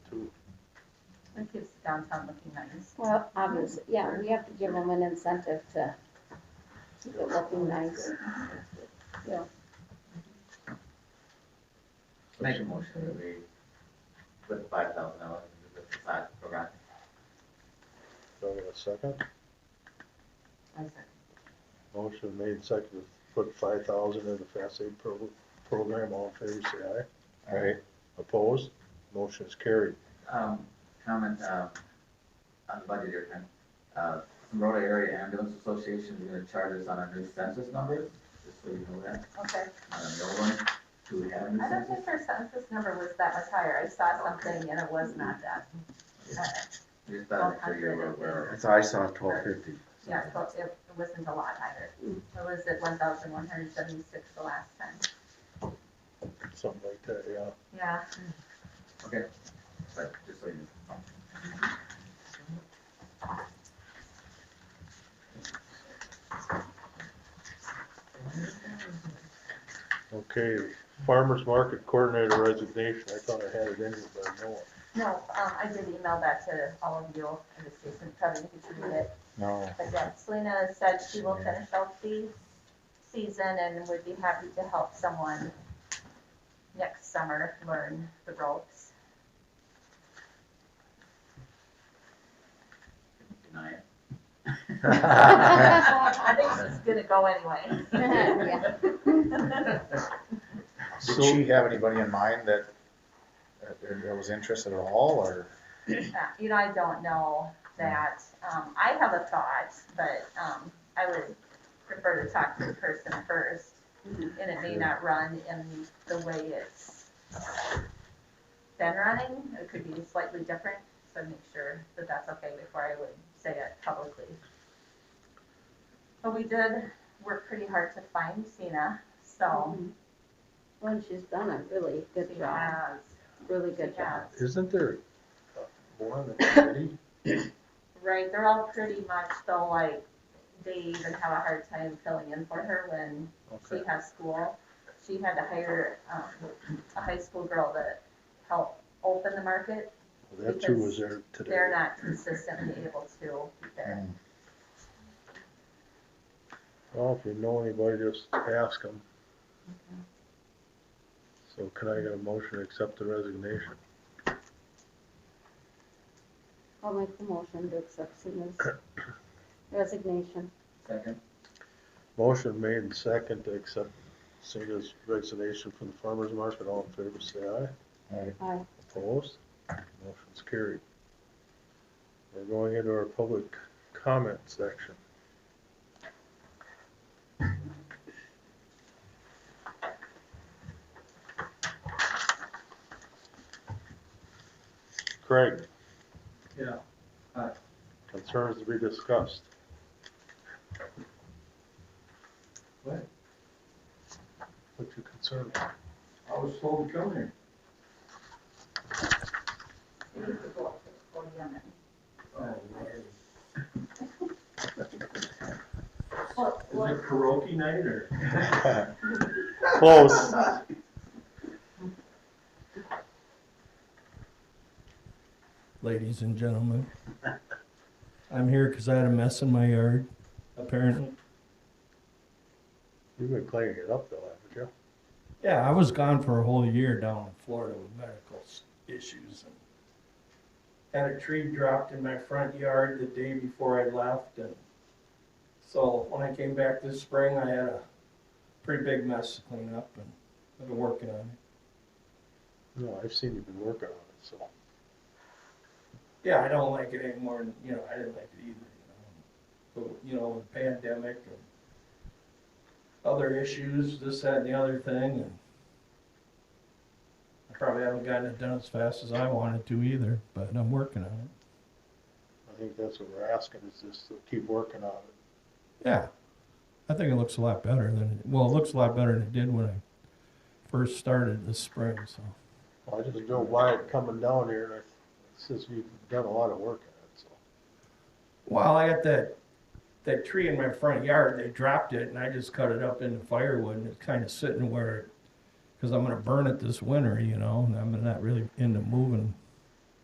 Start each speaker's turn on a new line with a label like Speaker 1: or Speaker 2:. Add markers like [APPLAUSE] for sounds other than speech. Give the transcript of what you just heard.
Speaker 1: That keeps downtown looking nice.
Speaker 2: Well, obviously, yeah, we have to give them an incentive to keep it looking nice.
Speaker 3: Make a motion that we put five thousand dollars into the facade program.
Speaker 4: Do I get a second?
Speaker 1: I said,
Speaker 4: Motion made second to put five thousand in the fast aid pro- program, all in favor, say aye. Aye. Opposed? Motion is carried.
Speaker 3: Um, comment, um, on the budget here, Ken. Uh, Rota Area Ambulance Association is gonna charge us on our new census numbers, just so you know that,
Speaker 1: okay.
Speaker 3: on the old one. Do we have a new
Speaker 1: I don't
Speaker 3: census?
Speaker 1: think our census number was that much higher. I saw something and it was not that. Uh,
Speaker 3: I Just thought I'd make sure you were aware of
Speaker 5: I thought I saw twelve [LAUGHS] fifty.
Speaker 1: Yeah, so it it wasn't a lot either. It was at one thousand one hundred seventy-six the last time.
Speaker 4: Something like that, yeah.
Speaker 1: Yeah,
Speaker 3: it, but just so you know.
Speaker 4: Okay, farmer's market coordinator resignation. I thought I had it in, here, but I know
Speaker 1: no, um, I did email that to all of you and the station, probably you should read it.
Speaker 4: No.
Speaker 1: But yeah, Selena said she will finish out the season and would be happy to help someone next summer learn the ropes.
Speaker 3: Deny it.
Speaker 1: I think she's gonna go anyway. [LAUGHS]
Speaker 2: Yeah.
Speaker 5: Did she have anybody in mind that, uh, that that was interested at all, or?
Speaker 1: Uh, You know, I don't know that, um, I have a thought, but, um, I would prefer to talk to the person first.
Speaker 2: Mm-hmm.
Speaker 1: And it may not run in the way it's been running, it could be slightly different, so make sure that that's okay before I would say it publicly. But we did work pretty hard to find Cena, so
Speaker 2: Well, she's done a really
Speaker 1: she
Speaker 2: Mm-hmm. good job,
Speaker 1: has,
Speaker 2: really
Speaker 1: she
Speaker 2: good job.
Speaker 1: has.
Speaker 4: Isn't there uh, more than a committee?
Speaker 1: Right, they're all pretty much though, like, they even have a hard time filling in for her when she
Speaker 4: Okay,
Speaker 1: has school. She had to hire, um, a high school girl to help open the market.
Speaker 4: that too was there
Speaker 1: They're
Speaker 4: today.
Speaker 1: not consistently able to be there.
Speaker 4: Well, if you know anybody, just ask them. So can I get a motion to accept the resignation?
Speaker 2: I'll make the motion to accept [COUGHS] Sina's resignation.
Speaker 3: Second,
Speaker 4: Motion made and second to accept Sina's resignation from the farmer's market. All in favor, say aye.
Speaker 2: Aye.
Speaker 4: Opposed? Motion's carried. We're going into our public comment section. Craig?
Speaker 6: Yeah, hi.
Speaker 4: Concerns to be discussed.
Speaker 6: What?
Speaker 4: What's your concern?
Speaker 6: I was told to come here.
Speaker 1: You need to go up to the podium and-
Speaker 6: Is [LAUGHS]
Speaker 1: Well, well,
Speaker 6: it karaoke night or? [LAUGHS]
Speaker 4: Close.
Speaker 7: ladies and gentlemen. I'm here because I had a mess in my yard, apparently.
Speaker 4: You've been cleaning it up though, haven't you?
Speaker 7: Yeah, I was gone for a whole year down in Florida with medical s- issues. and Had a tree dropped in my front yard the day before I left and so when I came back this spring, I had a pretty big mess to clean up and I've been working on it.
Speaker 4: No, I've seen you've been working on it, so.
Speaker 7: Yeah, I don't like it anymore and, you know, I didn't like it either, you know. But, you know, with pandemic and other issues, this, that, and the other thing, and I probably haven't gotten it done as fast as I wanted to either, but I'm working on it.
Speaker 4: I think that's what we're asking is just to keep working on it.
Speaker 7: Yeah. I think it looks a lot better than, it well, it looks a lot better than it did when I first started this spring, so.
Speaker 4: I just drove by it coming down here and I, since you've done a lot of work on it, so.
Speaker 7: Well, I got that, that tree in my front yard, they dropped it and I just cut it up into firewood and it's kind of sitting where, because I'm gonna burn it this winter, you know, and I'm not really into moving